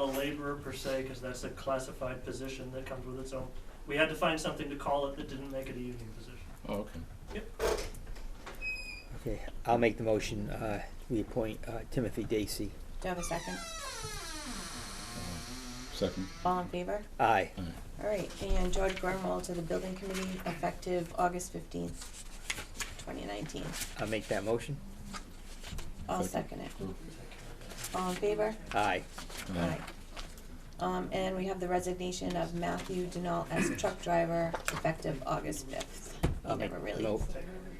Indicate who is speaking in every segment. Speaker 1: a laborer per se, because that's a classified position that comes with its own. We had to find something to call it that didn't make it a union position.
Speaker 2: Oh, okay.
Speaker 3: Okay, I'll make the motion, uh, we appoint, uh, Timothy Dacey.
Speaker 4: Do I have a second?
Speaker 2: Second.
Speaker 4: All in favor?
Speaker 3: Aye.
Speaker 2: Aye.
Speaker 4: All right, and George Gormall to the building committee effective August fifteenth, twenty nineteen.
Speaker 3: I'll make that motion.
Speaker 4: I'll
Speaker 2: Second.
Speaker 4: second it. All in favor?
Speaker 3: Aye.
Speaker 2: Aye.
Speaker 4: Um, and we have the resignation of Matthew Denal as truck driver effective August fifth.
Speaker 3: I'll
Speaker 4: You
Speaker 3: make-
Speaker 4: never really,
Speaker 3: no,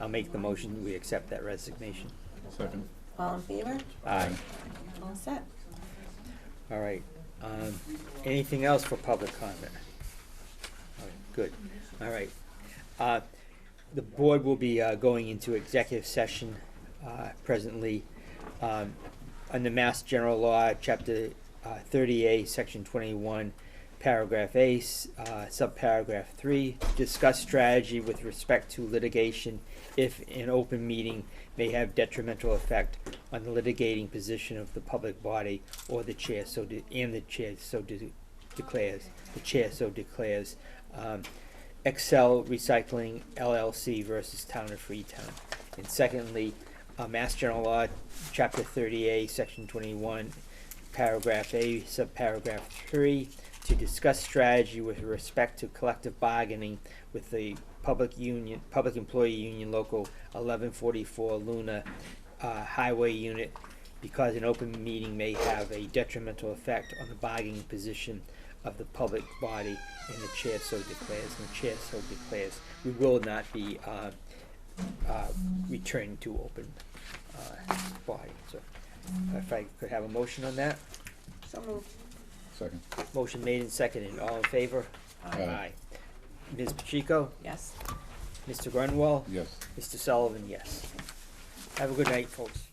Speaker 3: I'll make the motion, we accept that resignation.
Speaker 2: Second.
Speaker 4: all in favor?
Speaker 3: Aye.
Speaker 4: All set.
Speaker 3: All right, um, anything else for public comment? All right, Good, all right. Uh, the board will be, uh, going into executive session, uh, presently, um, under Mass General Law, Chapter, uh, thirty-eight, Section twenty-one, Paragraph A, s- uh, subparagraph three, discuss strategy with respect to litigation if an open meeting may have detrimental effect on the litigating position of the public body or the chair so de- and the chair so de- declares, the chair so declares. Um, Excel Recycling LLC versus Town of Freetown. And secondly, uh, Mass General Law, Chapter thirty-eight, Section twenty-one, Paragraph A, subparagraph three, to discuss strategy with respect to collective bargaining with the public union, public employee union local eleven forty-four Luna, uh, highway unit, because an open meeting may have a detrimental effect on the bargaining position of the public body, and the chair so declares, and the chair so declares. We will not be, uh, uh, returning to open, uh, body, so if I could have a motion on that?
Speaker 4: So moved.
Speaker 2: Second.
Speaker 3: Motion made and seconded, all in favor?
Speaker 2: Aye.
Speaker 3: Ms. Pacheco,
Speaker 4: Yes.
Speaker 3: Mr. Grunwall,
Speaker 2: Yes.
Speaker 3: Mr. Sullivan, yes. Have a good night, folks.